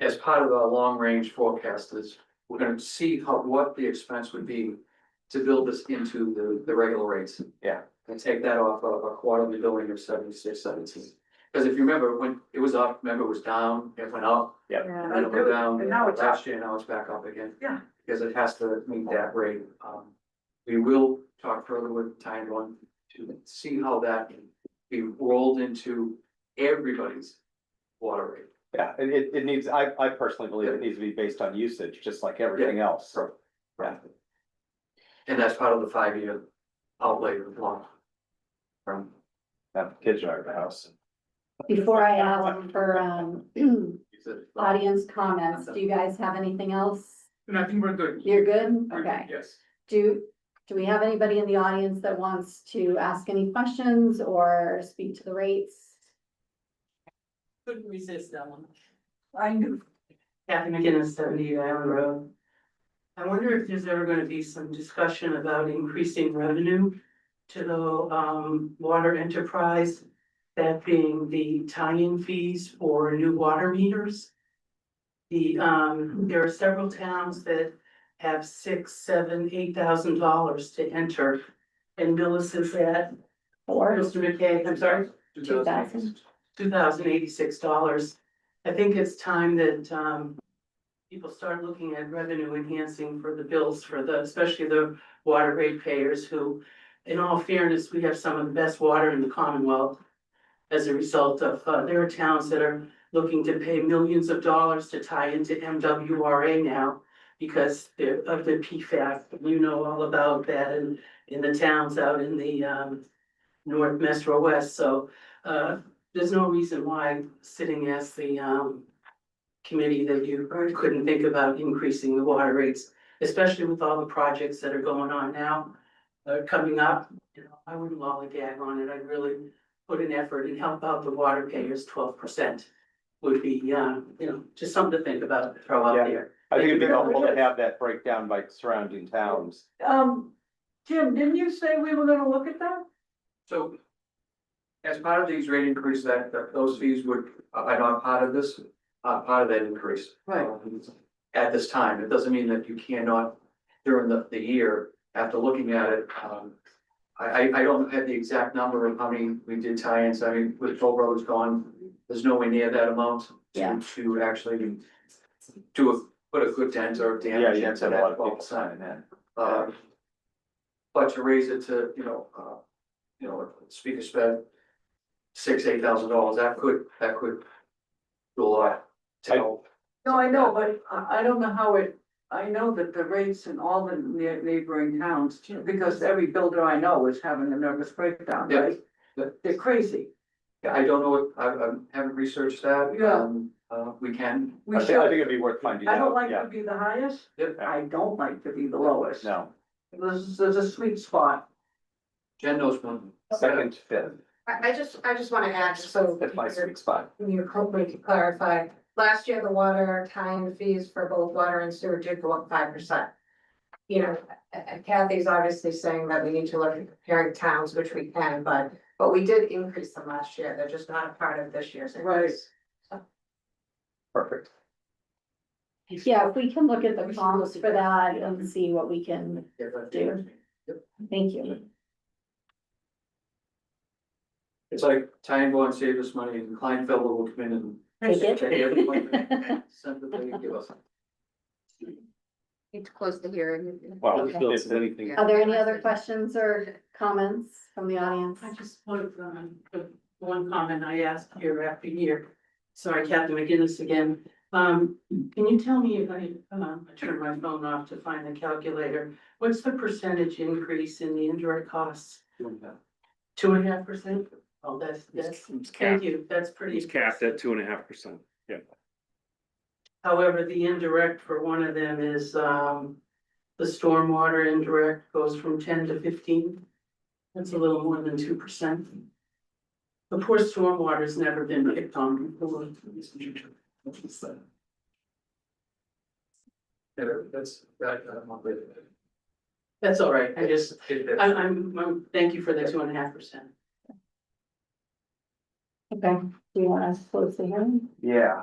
as part of our long range forecast is, we're gonna see how, what the expense would be to build this into the, the regular rates. Yeah. And take that off of a quarterly billing of seventy six seventeen. Cause if you remember, when it was up, remember it was down, it went up, and then it went down, And now it's up. last year, now it's back up again. Yeah. Because it has to meet that rate, um, we will talk further with time one to see how that can be rolled into everybody's water rate. Yeah, it, it, it needs, I, I personally believe it needs to be based on usage, just like everything else. Right. And that's part of the five-year outlay of the law. From, Have kids out of the house. Before I ask for um is it- audience comments, do you guys have anything else? And I think we're good. You're good? We're good, Okay. Yes. Do, do we have anybody in the audience that wants to ask any questions or speak to the rates? Couldn't resist that one. I knew. Kathy McGinnis, seventy Island Road. I wonder if there's ever gonna be some discussion about increasing revenue to the um water enterprise. That being the tie-in fees for new water meters. The um, there are several towns that have six, seven, eight thousand dollars to enter. And Millis is at, Or Mr. McKay, I'm sorry? two thousand? two thousand eighty-six dollars. I think it's time that um people start looking at revenue enhancing for the bills for the, especially the water rate payers who, in all fairness, we have some of the best water in the Commonwealth. As a result of, uh, there are towns that are looking to pay millions of dollars to tie into MWRA now because they're- of the PFAS. You know all about that in in the towns out in the um north, west, or west. So uh there's no reason why sitting as the um. Committee that you couldn't think about increasing the water rates, especially with all the projects that are going on now. Uh, coming up, you know, I wouldn't lollygag on it, I'd really put an effort and help out the water payers twelve percent. Would be, uh, you know, just something to think about, throw Yeah. out there. I think it'd be Thank you very helpful to much. have that breakdown by surrounding towns. Um, Jim, didn't you say we were gonna look at that? So as part of these rate increases, that, that those fees would, are not part of this, uh, part of that increase. Right. At this time, it doesn't mean that you cannot during the, the year, after looking at it, um. I, I, I don't have the exact number of how many we did tie-ins, I mean, with Toll Brothers gone, there's nowhere near that amount. to- Yeah. To actually do a, put a good dent or Yeah, damage you have to into have that a lot of people twelve percent. signing in. Um, But to raise it to, you know, uh, you know, speak of spend. Six, eight thousand dollars, that could, that could. Do a lot to I- help. No, I know, but I, I don't know how it, I know that the rates in all the ne- neighboring towns, because every builder I know is having a nervous breakdown, Yeah. right? Yeah. They're crazy. I don't know, if- I, I haven't researched that. Yeah. Um, Uh, we can, I We think, I should, think it'd be worth finding I don't out, like yeah, to be the highest, Yeah. I don't like to be the lowest. no, There's, there's a sweet spot. Jen knows one. second, fifth, I, I just, I just wanna add, just so that's my sweet spot. you can clarify, last year the water time fees for both water and sewer did go up five percent. You know, uh, Kathy's obviously saying that we need to look at comparing towns, which we can, but, but we did increase them last year, they're just not a part of this year's increase. Perfect. Yeah, if we can look at the columns for that and see what we can, Do. thank you. It's like tying bond saved us money and Kleinfelder will come in and. Take it. Pay everyone, send the thing and give us. Need to close the hearing. Well, Okay. if anything, Are there any other questions or comments from the audience? I just wanted, um, the one comment I asked year after year. Sorry, Captain McGinnis again. Um, can you tell me if I, um, I turned my phone off to find the calculator? What's the percentage increase in the indirect costs? Two and a half percent? Oh, that's, that's, It's thank capped, you, that's pretty. it's capped at two and a half percent. However, the indirect for one of them is, um, the stormwater indirect goes from ten to fifteen. That's a little more than two percent. The poor stormwater's never been picked on before. Yeah, that's, that, uh, I'm with it. That's all right, I just, It- I- it's- I'm, I'm, thank you for the two and a half percent. Okay, do you want us to close the hearing? yeah.